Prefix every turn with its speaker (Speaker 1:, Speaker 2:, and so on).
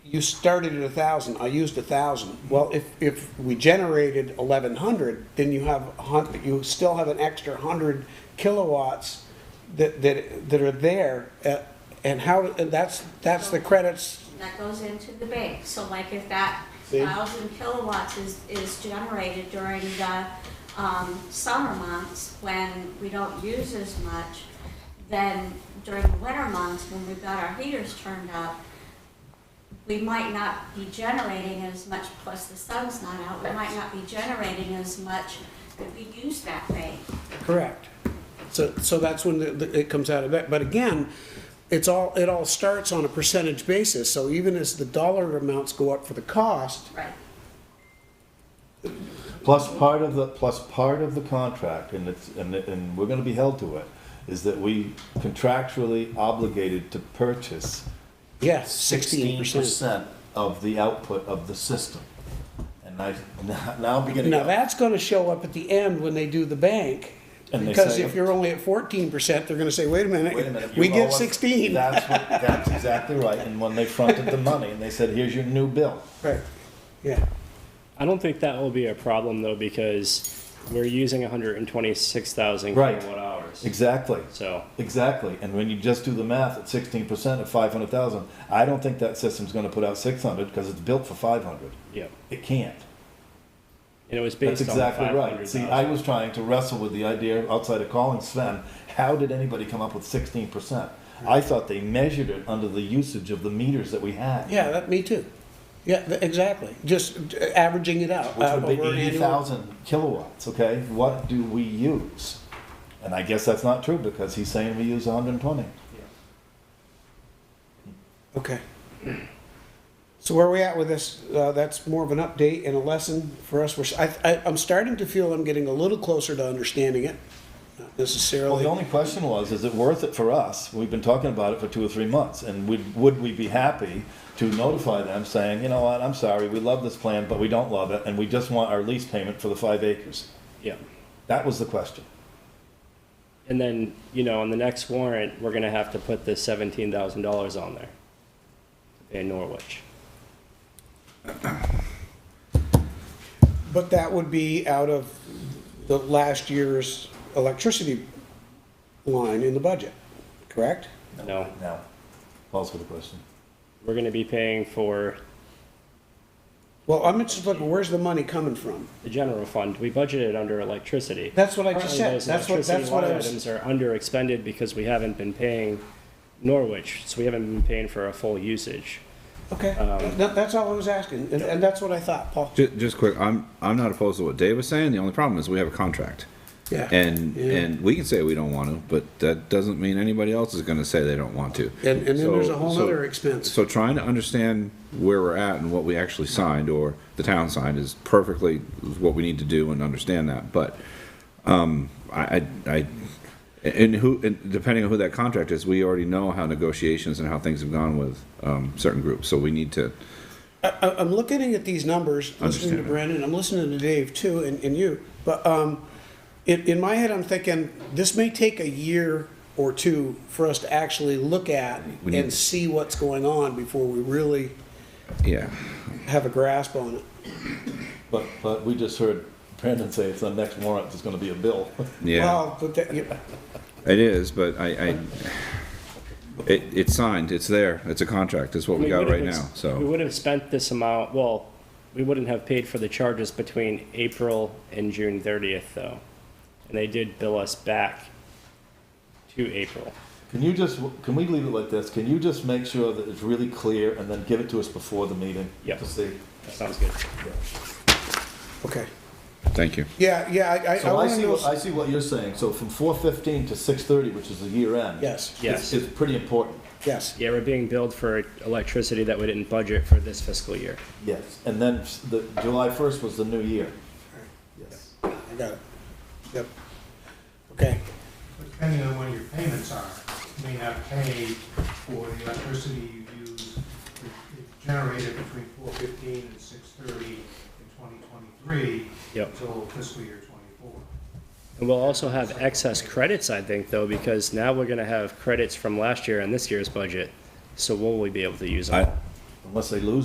Speaker 1: you started at a thousand, I used a thousand. Well, if, if we generated eleven hundred, then you have a hun, you still have an extra hundred kilowatts that, that, that are there. uh, And how, and that's, that's the credits,
Speaker 2: And that goes into the bank. So like if that
Speaker 1: See?
Speaker 2: thousand kilowatts is, is generated during the, um, summer months when we don't use as much, then during the winter months when we've got our heaters turned up, we might not be generating as much, plus the sun's not out, we might not be generating as much if we use that bank.
Speaker 1: correct. So, so that's when the- the- it comes out of that. But again, it's all, it all starts on a percentage basis. So even as the dollar amounts go up for the cost,
Speaker 2: Right.
Speaker 3: Plus part of the, plus part of the contract, and it's, and, and we're gonna be held to it, is that we contractually obligated to purchase
Speaker 1: yes, sixteen
Speaker 3: sixteen
Speaker 1: percent.
Speaker 3: percent of the output of the system. And I, now I'm beginning
Speaker 1: Now,
Speaker 3: to.
Speaker 1: that's gonna show up at the end when they do the bank.
Speaker 3: And they
Speaker 1: Because
Speaker 3: say-
Speaker 1: if you're only at fourteen percent, they're gonna say, wait a
Speaker 3: Wait a minute.
Speaker 1: minute,
Speaker 3: you
Speaker 1: we
Speaker 3: owe
Speaker 1: get
Speaker 3: us-
Speaker 1: sixteen.
Speaker 3: That's what, that's exactly right, and when they fronted the money, and they said, here's your new bill.
Speaker 1: Right, yeah.
Speaker 4: I don't think that will be a problem though, because we're using hundred and twenty-six thousand
Speaker 3: Right.
Speaker 4: kilowatt hours.
Speaker 3: Exactly.
Speaker 4: So,
Speaker 3: Exactly, and when you just do the math at sixteen percent of five hundred thousand, I don't think that system's gonna put out six hundred, because it's built for five hundred.
Speaker 4: yeah,
Speaker 3: It can't.
Speaker 4: and it was
Speaker 3: That's
Speaker 4: based on five
Speaker 3: exactly right.
Speaker 4: hundred
Speaker 3: See, I
Speaker 4: thousand.
Speaker 3: was trying to wrestle with the idea outside of calling Sven, how did anybody come up with sixteen percent? I thought they measured it under the usage of the meters that we had.
Speaker 1: Yeah, that, me too. Yeah, th- exactly. Just uh, averaging it out.
Speaker 3: Which
Speaker 1: uh,
Speaker 3: would be
Speaker 1: over an
Speaker 3: eighty
Speaker 1: annual-
Speaker 3: thousand kilowatts, okay? What do we use? And I guess that's not true, because he's saying we use hundred and twenty.
Speaker 1: Okay. So where are we at with this? Uh, that's more of an update and a lesson for us. We're, s- I, I, am starting to feel I'm getting a little closer to understanding it. Not
Speaker 3: Well, the
Speaker 1: necessarily.
Speaker 3: only question was, is it worth it for us? We've been talking about it for two or three months, and would, would we be happy to notify them saying, you know what, I'm sorry, we love this plan, but we don't love it, and we just want our lease payment for the five acres?
Speaker 4: Yeah,
Speaker 3: That was the question.
Speaker 4: and then, you know, on the next warrant, we're gonna have to put the seventeen thousand dollars on there. In Norwich.
Speaker 1: But that would be out of the last year's electricity line in the budget, correct?
Speaker 4: No,
Speaker 3: Now, Paul's got a question.
Speaker 4: we're gonna be paying for
Speaker 1: Well, I'm just looking, where's the money coming from?
Speaker 4: the general fund. We budgeted under electricity.
Speaker 1: That's what I just
Speaker 4: Currently,
Speaker 1: said.
Speaker 4: those
Speaker 1: That's what,
Speaker 4: electricity
Speaker 1: that's what I
Speaker 4: line
Speaker 1: was,
Speaker 4: Items are under expended because we haven't been paying Norwich, so we haven't been paying for a full usage.
Speaker 1: okay. That- That's all I was asking, and, and that's what I thought, Paul.
Speaker 5: Um, Just, just quick, I'm I'm not opposed to what Dave was saying. The only problem is we have a contract,
Speaker 1: Yeah.
Speaker 5: and
Speaker 1: Yeah.
Speaker 5: and we can say we don't want to, but that doesn't mean anybody else is going to say they don't want to.
Speaker 1: And, and then there's a whole other expense.
Speaker 5: So trying to understand where we're at and what we actually signed or the town signed is perfectly what we need to do and understand that. But um, I, I, I and who and depending on who that contract is, we already know how negotiations and how things have gone with um, certain groups. So we need to.
Speaker 1: I, I'm looking at these numbers, listening to
Speaker 5: Understand.
Speaker 1: Brandon, I'm listening to Dave too, and, and you, but, um, in, in my head, I'm thinking, this may take a year or two for us to actually look at
Speaker 5: We
Speaker 1: and
Speaker 5: need-
Speaker 1: see what's going on before we really
Speaker 5: Yeah.
Speaker 1: have a grasp on it.
Speaker 3: But, but we just heard Brandon say it's the next warrant, there's gonna be a bill.
Speaker 5: Yeah.
Speaker 1: Well, but that, yeah,
Speaker 5: It is, but I, I, it, it's signed, it's there, it's a contract, it's what we got
Speaker 4: would've
Speaker 5: right
Speaker 4: ex-
Speaker 5: now,
Speaker 4: We
Speaker 5: so.
Speaker 4: would have spent this amount, well, we wouldn't have paid for the charges between April and June thirtieth, though. And they did bill us back to April.
Speaker 3: Can you just, can we leave it like this? Can you just make sure that it's really clear and then give it to us before the meeting?
Speaker 4: Yep.
Speaker 3: To see.
Speaker 4: That sounds good.
Speaker 1: okay.
Speaker 5: Thank you.
Speaker 1: Yeah, yeah, I, I, I
Speaker 3: So I
Speaker 1: wanna
Speaker 3: see, what-
Speaker 1: know,
Speaker 3: I see what you're saying, so from four fifteen to six thirty, which is the year end.
Speaker 1: Yes.
Speaker 3: is-
Speaker 4: Yes.
Speaker 3: Is pretty important,
Speaker 1: yes,
Speaker 4: Yeah, we're being billed for electricity that we didn't budget for this fiscal year.
Speaker 3: yes, and then s- the, July first was the new year. Yes.
Speaker 1: I got it. Yep. Okay,
Speaker 6: Depending on when your payments are, you may not pay for the electricity you use it- it generated between four fifteen and six thirty in twenty twenty-three
Speaker 4: Yep.
Speaker 6: until fiscal year twenty-four.
Speaker 4: And we'll also have excess credits, I think, though, because now we're gonna have credits from last year and this year's budget. So will we be able to use them?
Speaker 5: I-
Speaker 4: all?
Speaker 3: Unless they lose